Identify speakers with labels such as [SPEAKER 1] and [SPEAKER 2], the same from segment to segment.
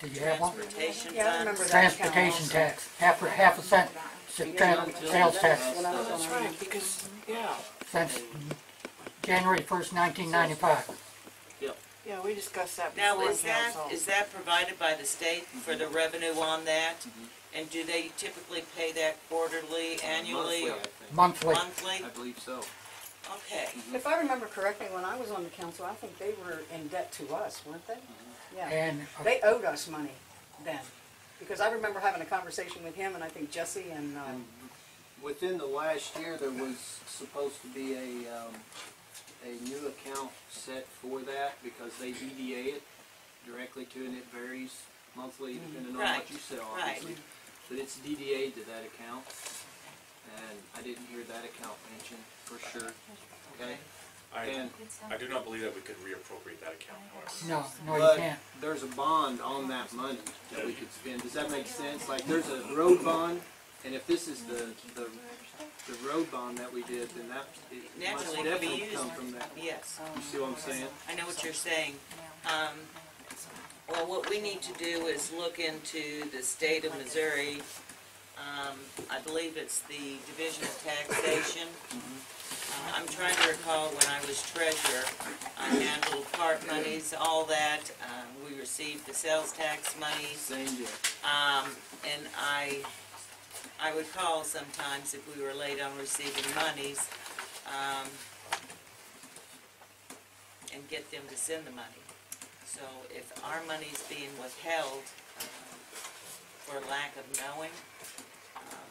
[SPEAKER 1] Do you have one?
[SPEAKER 2] Transportation
[SPEAKER 3] Yeah, I
[SPEAKER 2] fund.
[SPEAKER 3] remember that.
[SPEAKER 1] Transportation tax, half, a- half a cent, s- tran- sales tax
[SPEAKER 3] When I was on
[SPEAKER 4] That's
[SPEAKER 3] our-
[SPEAKER 4] right, because, yeah,
[SPEAKER 1] since January first nineteen ninety-five.
[SPEAKER 3] Yeah, we discussed that
[SPEAKER 2] Now,
[SPEAKER 3] before in
[SPEAKER 2] is that,
[SPEAKER 3] council.
[SPEAKER 2] is that provided by the state for the revenue on that? And do they typically pay that quarterly, annually,
[SPEAKER 4] monthly,
[SPEAKER 2] or
[SPEAKER 4] I think.
[SPEAKER 1] Monthly,
[SPEAKER 2] monthly?
[SPEAKER 4] I believe so.
[SPEAKER 2] Okay,
[SPEAKER 3] If I remember correctly, when I was on the council, I think they were in debt to us, weren't they? Yeah,
[SPEAKER 1] and uh,
[SPEAKER 3] they owed us money then, because I remember having a conversation with him and I think Jesse and, um,
[SPEAKER 4] Within the last year, there was supposed to be a, um, a new account set for that because they EDA it directly to, and it varies monthly depending on
[SPEAKER 2] Mm-hmm. Right,
[SPEAKER 4] what you sell,
[SPEAKER 2] right.
[SPEAKER 4] obviously. But it's DDA to that account, and I didn't hear that account mentioned for sure, okay?
[SPEAKER 5] I,
[SPEAKER 4] And
[SPEAKER 5] I do not believe that we could reappropriate that account, however.
[SPEAKER 1] no, no, you
[SPEAKER 4] But
[SPEAKER 1] can't.
[SPEAKER 4] there's a bond on that money that we could spend. Does that make sense? Like, there's a road bond, and if this is the, the, the road bond that we did, then that, it must
[SPEAKER 2] Naturally, it could be
[SPEAKER 4] definitely
[SPEAKER 2] used.
[SPEAKER 4] come from that. You
[SPEAKER 2] yes,
[SPEAKER 4] see what I'm saying?
[SPEAKER 2] I know what you're saying. Um, well, what we need to do is look into the state of Missouri. Um, I believe it's the Division of Taxation. Uh, I'm trying to recall when I was treasurer, I handled park monies, all that. Uh, we received the sales tax monies.
[SPEAKER 4] Same deal.
[SPEAKER 2] Um, and I, I would call sometimes if we were late on receiving monies, um, and get them to send the money. So if our money's being withheld um, for lack of knowing, um,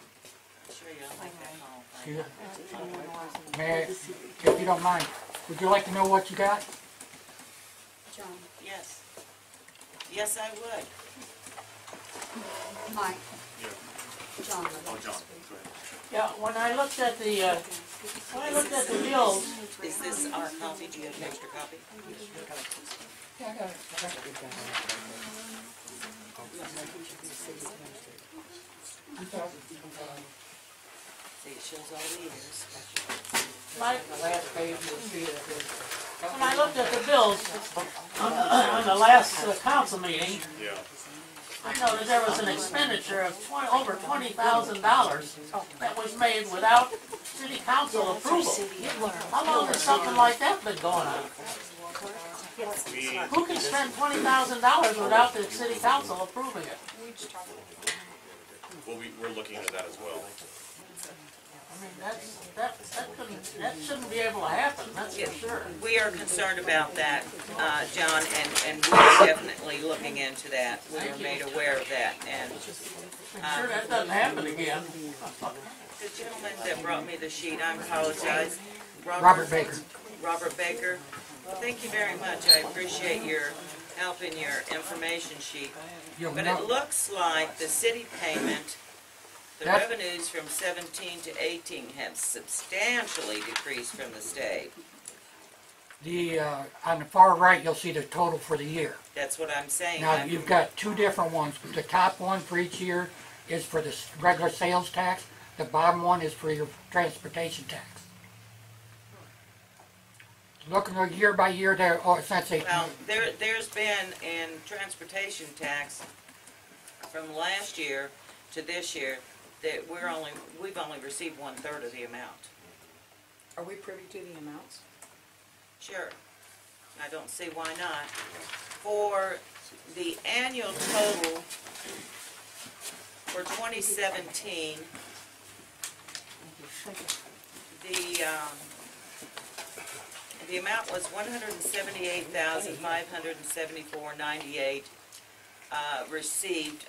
[SPEAKER 2] I'm sure y'all make that call.
[SPEAKER 1] Do you-
[SPEAKER 2] right?
[SPEAKER 1] May, I- if you don't mind, would you like to know what you got?
[SPEAKER 6] John,
[SPEAKER 2] Yes. Yes, I would.
[SPEAKER 6] Mike,
[SPEAKER 5] Yeah,
[SPEAKER 6] John.
[SPEAKER 5] oh, John, go ahead.
[SPEAKER 7] Yeah, when I looked at the, uh, when I looked at the bills,
[SPEAKER 2] Is this our copy? Do you have an extra copy? See, it shows all the years.
[SPEAKER 7] Mike, when I looked at the bills on, on the last uh, council meeting,
[SPEAKER 5] Yeah,
[SPEAKER 7] I noticed there was an expenditure of twen- over twenty thousand dollars that was made without city council approval. How long has something like that been going on?
[SPEAKER 5] we,
[SPEAKER 7] Who can spend twenty thousand dollars without the city council approving it?
[SPEAKER 5] well, we, we're looking into that as well.
[SPEAKER 7] I mean, that's, that, that couldn't, that shouldn't be able to happen, that's for sure.
[SPEAKER 2] We are concerned about that, uh, John, and, and we are definitely looking into that. We are made aware of that. And um,
[SPEAKER 7] I'm sure that doesn't happen again.
[SPEAKER 2] the gentleman that brought me the sheet, I apologize.
[SPEAKER 1] Robert Baker.
[SPEAKER 2] Robert Baker. Thank you very much. I appreciate your help in your information sheet.
[SPEAKER 1] You'll
[SPEAKER 2] But it
[SPEAKER 1] know,
[SPEAKER 2] looks like the city payment, the
[SPEAKER 1] That-
[SPEAKER 2] revenues from seventeen to eighteen have substantially decreased from the state.
[SPEAKER 1] the, uh, on the far right, you'll see the total for the year.
[SPEAKER 2] That's what I'm saying.
[SPEAKER 1] Now,
[SPEAKER 2] I'm-
[SPEAKER 1] you've got two different ones. The top one for each year is for the s- regular sales tax. The bottom one is for your transportation tax. Looking at year by year there, oh, since they,
[SPEAKER 2] Well, there, there's been in transportation tax from last year to this year, that we're only, we've only received one-third of the amount.
[SPEAKER 3] are we privy to the amounts?
[SPEAKER 2] Sure, I don't see why not. For the annual total for twenty seventeen, the, um, the amount was one hundred and seventy-eight thousand, five hundred and seventy-four, ninety-eight, uh, received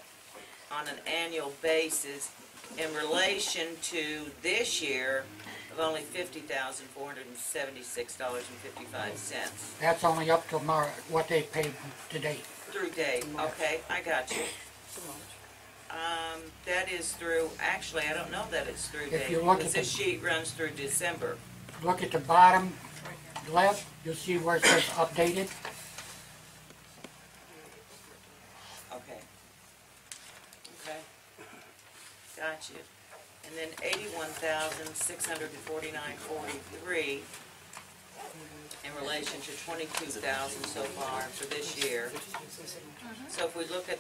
[SPEAKER 2] on an annual basis in relation to this year of only fifty thousand, four hundred and seventy-six dollars and fifty-five cents
[SPEAKER 1] that's only up to mar, what they paid to date.
[SPEAKER 2] through date, okay, I got you. Um, that is through, actually, I don't know that it's through date,
[SPEAKER 1] If you look
[SPEAKER 2] because
[SPEAKER 1] at the-
[SPEAKER 2] this sheet runs through December.
[SPEAKER 1] Look at the bottom left, you'll see where it says updated.
[SPEAKER 2] Okay. Okay. Got you. And then eighty-one thousand, six hundred and forty-nine, forty-three in relation to twenty-two thousand so far for this year. So if we look at